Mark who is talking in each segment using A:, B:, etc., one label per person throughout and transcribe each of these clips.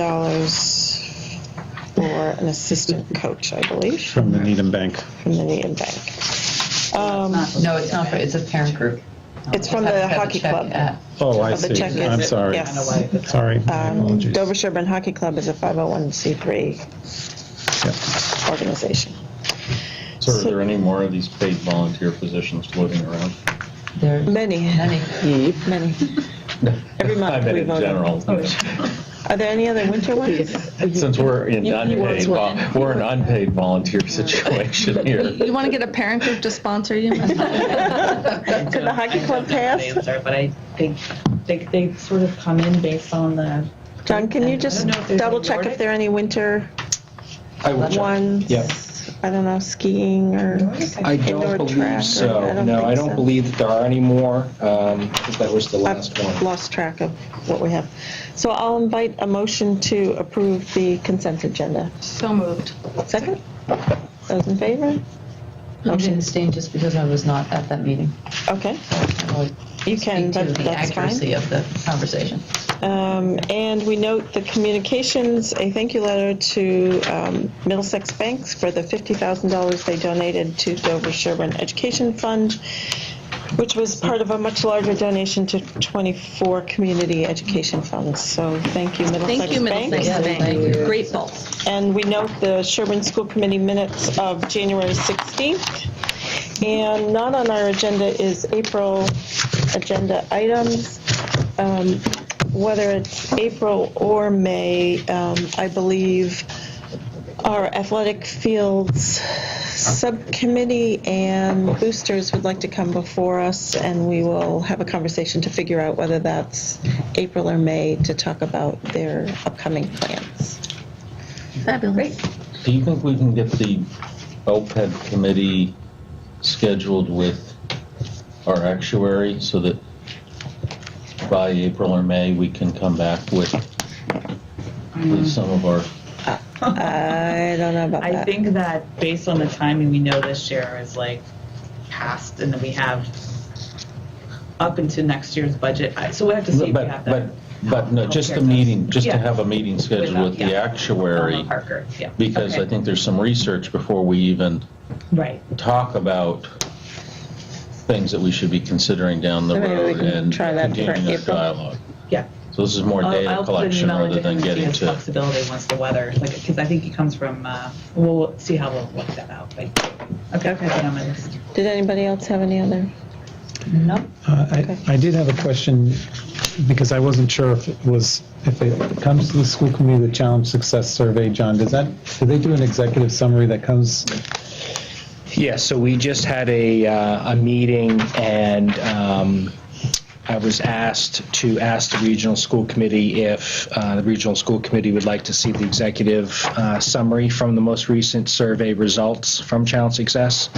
A: $1,400 for an assistant coach, I believe,
B: from the Needham Bank.
A: from the Needham Bank. Um,
C: Not- No, it's not, for. it's a parent group.
A: It's from the
C: Have to have a
A: hockey
C: check
A: club.
C: at-
B: Oh, I
A: Of the
B: see.
A: check-in.
B: I'm sorry.
A: Yes.
B: Sorry, my
A: um,
B: apologies.
A: Dover Sherburne Hockey Club is a 501c3
B: Yep.
A: organization.
D: So are there any more of these paid volunteer positions floating around?
C: There,
A: Many,
C: many,
A: many. Every
D: I
A: month
D: mean,
A: we
D: in
A: vote.
D: general.
A: Are there any other winter ones?
D: Since we're in
E: You- you
D: unpaid,
E: want
D: vol-
E: one.
D: we're an unpaid volunteer situation here.
E: You want to get a parent group to sponsor you?
A: Could the hockey club pass?
F: But I think they, they sort of come in based on the.
A: John, can you
F: I don't
A: just
F: know if there's a
A: double check if
F: Nordic-
A: there are any winter
G: I will check.
A: ones?
G: Yep.
A: I don't know, skiing or
G: I
A: indoor track?
G: don't believe
A: or-
G: so. No, I
A: think
G: don't
A: so.
G: believe that there are any more. Um, I think that was the last
A: I've
G: one.
A: lost track of what we have. So I'll invite a motion to approve the consent agenda.
E: So moved.
A: Second? Those in favor?
C: I'm going to stay just because I was not at that meeting.
A: Okay,
C: I would
A: you can,
C: speak to
A: that-
C: the
A: that's fine.
C: accuracy of the conversation.
A: Um, And we note the communications, a thank you letter to um, Middlesex Banks for the $50,000 they donated to Dover Sherburne Education Fund, which was part of a much larger donation to 24 community education funds. So thank you, Middlesex Banks.
E: Thank you, Middlesex
C: Yeah, thank
E: Bank.
C: you.
E: Grateful.
A: And we note the Sherburne School Committee minutes of January 16th. And not on our agenda is April agenda items. Um, Whether it's April or May, um, I believe our athletic fields subcommittee and boosters would like to come before us, and we will have a conversation to figure out whether that's April or May to talk about their upcoming plans.
E: Fabulous.
D: Do you think we can get the OPEB committee scheduled with our actuary so that by April or May, we can come back with
F: Mm-hmm.
D: with some of our
A: I don't know about
F: I
A: that.
F: think that based on the timing, we know this year is like past and then we have up into next year's budget. I- So we have to see if we
D: But,
F: have that.
D: but, but no, just a
F: Healthcare
D: meeting, just to
F: Yeah.
D: have a meeting scheduled with the
F: Yeah. Uh-huh.
D: actuary,
F: Elma Parker, yeah.
D: because I
F: Okay.
D: think there's some research before we even
F: Right.
D: talk about things that we should be considering down the
A: Maybe we
D: road
A: can
D: and
A: try that for
D: continuing our
A: April.
D: dialogue.
F: Yeah.
D: So this is more
F: I'll-
D: data
F: I'll put an
D: collection
F: email
D: rather
F: into him
D: than
F: and see
D: getting
F: his
D: to,
F: Flexibility once the weather, like, because I think he comes from, uh, we'll we'll see how we'll work that out, but, okay, okay, on my list.
A: Did anybody else have any other?
C: Nope.
B: Uh, I I did have a question, because I wasn't sure if it was, if it comes to the school committee, the challenge success survey, John, does that, do they do an executive summary that comes?
G: Yeah, so we just had a, uh, a meeting and um, I was asked to ask the regional school committee if uh, the regional school committee would like to see the executive uh, summary from the most recent survey results from Challenge Success.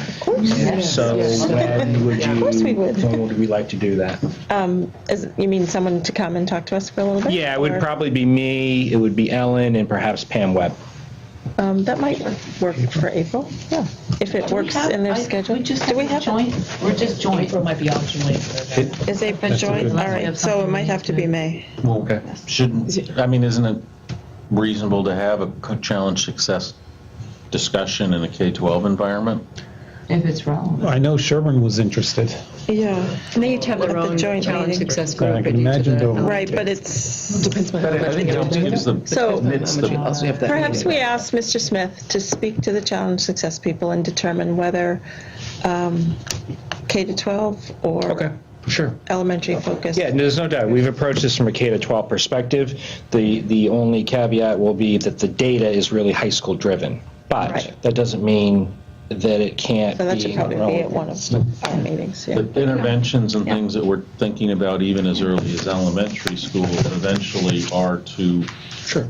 G: So when would you? Of
A: course we would.
G: When would we like to do that?
A: Is, you mean someone to come and talk to us for a little bit?
G: Yeah, it would
A: Or-
G: probably be me, it would be Ellen, and perhaps Pam Webb.
A: Um, that might work for April, yeah, if it works in their
C: I-
A: schedule.
C: We just
A: Do we have,
C: have a joint, we're just joint.
F: April might be optionally. for that.
A: is April
B: That's a
A: joint?
B: good-
A: All
C: We
A: right,
C: have
A: so it
C: something
A: might
C: we
A: have to
C: need
A: be
C: to-
A: May.
G: Okay.
D: shouldn't, I mean, isn't it reasonable to have a co- challenge success discussion in a K-12 environment?
C: If it's relevant.
B: I know Sherburne was interested.
A: Yeah,
H: And they each have
A: At
H: their
A: the
H: own
A: joint
H: challenge
A: meeting.
H: success
B: I
H: group.
B: can
H: at each of
B: imagine
H: the-
B: they'll-
A: right, but it's,
H: Depends on how
D: I
H: much
D: think
H: you
D: it
H: all do.
D: gives the,
A: So-
D: it's
H: How much you
D: the,
H: also have that
A: perhaps
H: meeting.
A: we ask Mr. Smith to speak to the challenge success people and determine whether um, K to 12
G: Okay,
A: or
G: sure.
A: elementary focus.
G: Yeah, there's no doubt. We've approached this from a K to 12 perspective. The the only caveat will be that the data is really high school driven, but
A: Right.
G: that doesn't mean that it can't
A: So that
G: be
A: should probably be at
G: relevant.
A: one of our meetings, yeah.
D: the interventions and things that we're thinking about even as early as elementary school eventually are to
G: Sure.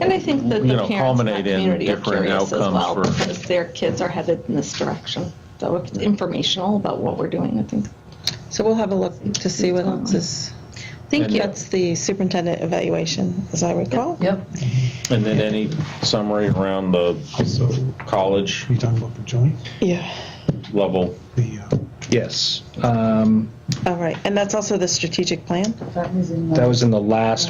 H: And I think that
D: You
H: the
D: know,
H: parents in
D: culminate
H: that
D: in
H: community are
D: different
H: curious as
D: outcomes
H: well
D: for-
H: because their kids are headed in this direction. So if it's informational about what we're doing, I think.
A: So we'll have a look to see what else is.
H: Thank you.
A: That's the superintendent evaluation, as I recall.
C: Yep.
D: And then any summary around the
B: So,
D: college
B: are you talking about the joint?
A: Yeah.
D: level?
B: The, uh,
G: Yes. Um,
A: All right, and that's also the strategic plan?
F: That was in the-
G: that was in the last